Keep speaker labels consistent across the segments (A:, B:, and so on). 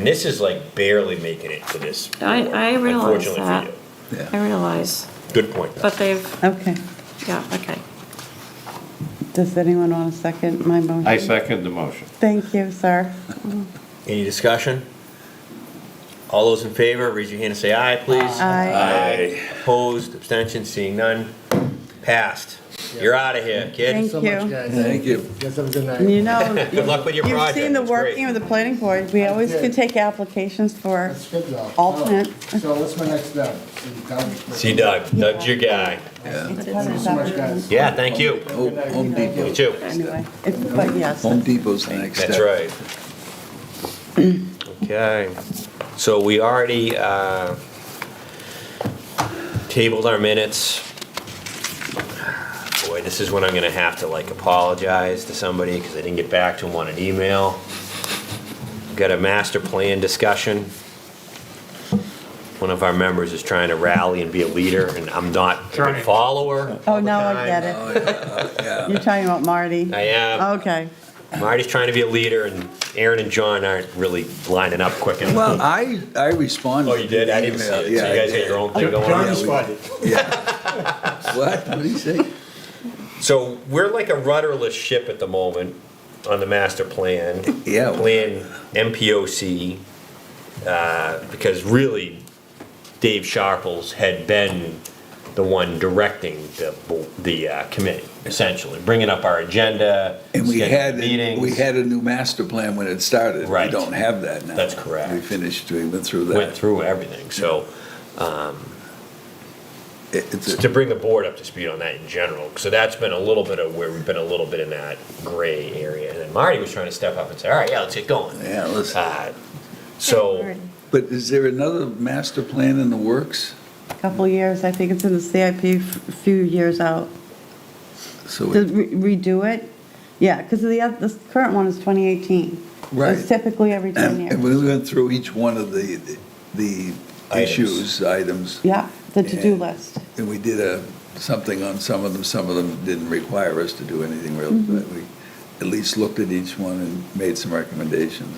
A: And this is like barely making it to this.
B: I- I
A: floor,
B: realize
A: unfortunately for
B: that.
A: you.
B: I realize,
A: Good point.
B: but they've,
C: Okay.
B: yeah, okay.
C: Does anyone want to second my motion?
D: I second the motion.
C: Thank you, sir.
A: Any discussion? All those in favor, raise your hand and say aye, please.
E: Uh,
C: Aye.
A: Opposed, abstention, seeing none, passed. You're out of here,
C: Thank
A: kid.
F: so
C: you.
F: much, guys.
E: Thank you.
F: Guys, have a good night.
C: You know,
A: Good luck with your
C: you've
A: project.
C: seen the
A: It's great.
C: working of the planning board. We always
F: did.
C: can take applications for,
F: That's good though.
C: Alternate.
F: So what's my next step? See Doug.
A: See Doug, Doug's your guy.
F: Thank you so much, guys.
A: Yeah, thank you.
E: Oh, Home
A: You
E: Depot.
A: too.
C: anyway, It- but yes.
E: Home Depot's the next step.
A: That's right. Okay, so we already uh, tabled our minutes. Boy, this is when I'm gonna have to like apologize to somebody because I didn't get back to them on an email. Got a master plan discussion. One of our members is trying to rally and be a leader, and I'm not a
G: Trying.
A: follower.
C: Oh, now I get it. You're talking about Marty.
A: I am.
C: Okay.
A: Marty's trying to be a leader, and Aaron and John aren't really lining up quick enough.
E: Well, I, I responded.
A: Oh, you did? I didn't see
E: to the
A: it. So
E: email.
A: you
E: Yeah,
A: guys
E: I
A: got your own thing going
E: yeah,
A: on?
E: we-
F: responded.
E: yeah. What? What do you say?
A: So we're like a rudderless ship at the moment on the master plan.
E: Yeah.
A: Plan MPOC, uh, because really Dave Sharples had been the one directing the, bo- the uh, committee, essentially, bringing up our agenda.
E: And we
A: scheduling
E: had,
A: meetings.
E: we had a new master plan when it started.
A: Right.
E: We don't have that now.
A: That's correct.
E: We finished, we went through that.
A: Went through everything, so.
E: It- it's a-
A: to bring the board up to speed on that in general. So that's been a little bit of where we've been a little bit in that gray area. And then Marty was trying to step up and say, all right, yeah, let's get going.
E: Yeah, let's-
A: Uh, So,
E: But is there another master plan in the works?
C: Couple years, I think it's in the CIP, f- few years out.
E: So,
C: To
E: it-
C: re- redo it? Yeah, because the, oth- this current one is 2018.
E: Right.
C: It's typically every 10
E: and
C: years.
E: we went through each one of the, the
A: Items.
E: issues, items.
C: Yeah, the to-do
E: And-
C: list.
E: And we did a, something on some of them, some of them didn't require us to do anything really,
C: Mm-hmm.
E: but we at least looked at each one and made some recommendations.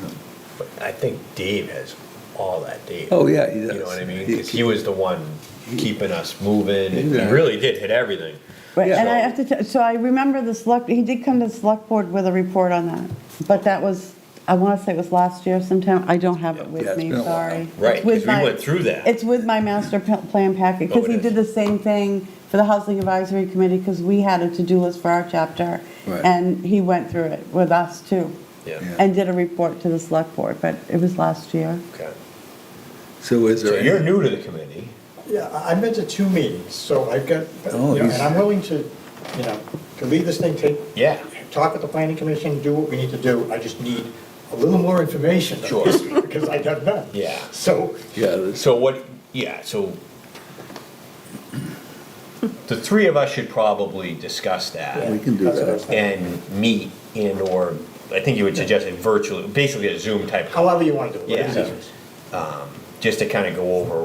A: but I think Dave has all that data.
E: Oh, yeah, he does.
A: You know what I mean?
E: He-
A: 'Cause he was the one keeping us moving. and He
E: Yeah.
A: really did hit everything.
C: Right, and I
A: So-
C: have to, tell- so I remember the select, he did come to the select board with a report on that, but that was, I want to say it was last year sometime, I don't have it
E: Yeah,
C: with
E: it's
C: me,
E: been a while.
C: sorry.
A: Right,
C: It's with
A: 'cause we
C: my-
A: went through that.
C: It's with my master p- plan packet,
A: Oh,
C: because
A: it
C: he
A: is.
C: did the same thing for the Housing Advisory Committee, because we had a to-do list for our chapter,
E: Right.
C: and he went through it with us too,
A: Yeah.
E: Yeah.
C: and did a report to the select board, but it was last year.
A: Okay.
E: So is
A: So
E: there?
A: you're
E: any-
A: new to the committee.
H: Yeah, I- I've been to two meetings, so I've got, you
E: Oh,
H: know,
E: he's-
H: and I'm willing to, you know, to lead this thing, take,
A: Yeah.
H: talk with the planning commission, do what we need to do. I just need a little more information.
A: Sure.
H: Because I got none.
A: Yeah.
H: So,
E: Yeah, this-
A: So what, yeah, so the three of us should probably discuss that.
E: we can do
H: That's what I was
E: that.
H: thinking.
A: and meet and or, I think you would suggest a virtual, basically a Zoom type, call,
H: however you want to do it. whatever's
A: Yeah.
H: easiest.
A: just to kind of go over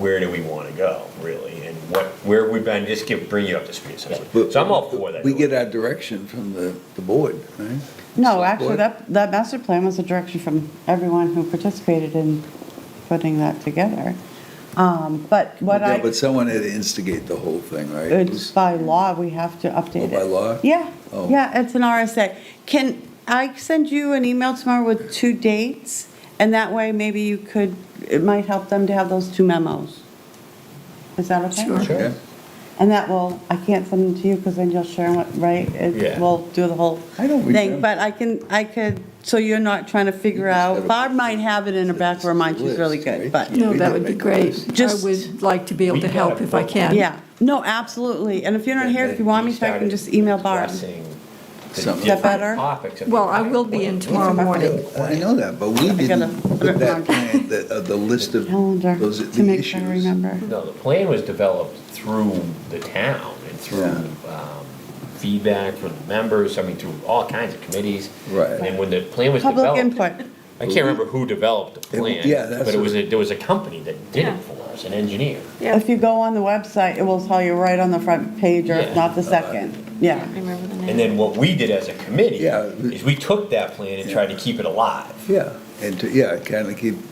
A: where do we want to go, really, and what, where we've been, just give, bring you up to speed essentially.
E: But
A: So I'm all for that.
E: We get our direction from the, the board, right?
C: No,
E: Select
C: actually,
E: board?
C: that, that master plan was a direction from everyone who participated in putting that together. Um, But what
E: Yeah,
C: I,
E: But someone had to instigate the whole thing, right?
C: it's by law, we have to
E: Oh,
C: update it.
E: by law?
C: Yeah,
E: Oh.
C: yeah, it's an RSA. Can I send you an email tomorrow with two dates? And that way, maybe you could, it might help them to have those two memos. Is that okay?
B: Sure.
E: Yeah.
C: And that will, I can't send them to you because then you'll share what, right? It
A: Yeah.
C: will do the whole
E: I don't
C: thing.
E: remember.
C: But I can, I could, so you're not trying to figure
E: You just
C: out,
E: gotta-
C: Barb might have it in her back of her mind, she's really good,
E: List,
C: but,
E: right?
B: No, that would be great. I
C: Just-
B: would like to be able to help if I can.
C: yeah. No, absolutely. And if you're not here, if you want me, I can just email Barb.
A: Is
E: Something.
C: Is that better?
B: Well, I will be in tomorrow morning.
E: I know that, but we didn't
C: gotta put it
E: put
C: on.
E: that plan, the, uh, the list of
C: Calendar,
E: those,
C: to
E: the
C: make sure I
E: issues.
C: remember.
A: No, the plan was developed through the town and through
E: Yeah.
A: um, feedback from the members, I mean, through all kinds of committees.
E: Right.
A: And then when the plan was developed.
C: Public input.
A: I can't remember who developed the
E: It-
A: plan.
E: yeah, that's
A: But it
E: what-
A: was, a- there was a company that did
B: Yeah.
A: it for us, an engineer.
C: If you go on the website, it will tell you right on the front page or if
A: Yeah.
C: not the second. Yeah.
B: Remember the name?
A: And then what we did as a committee
E: Yeah.
A: is we took that plan and tried to keep it alive.
E: Yeah. and to, yeah, kind of keep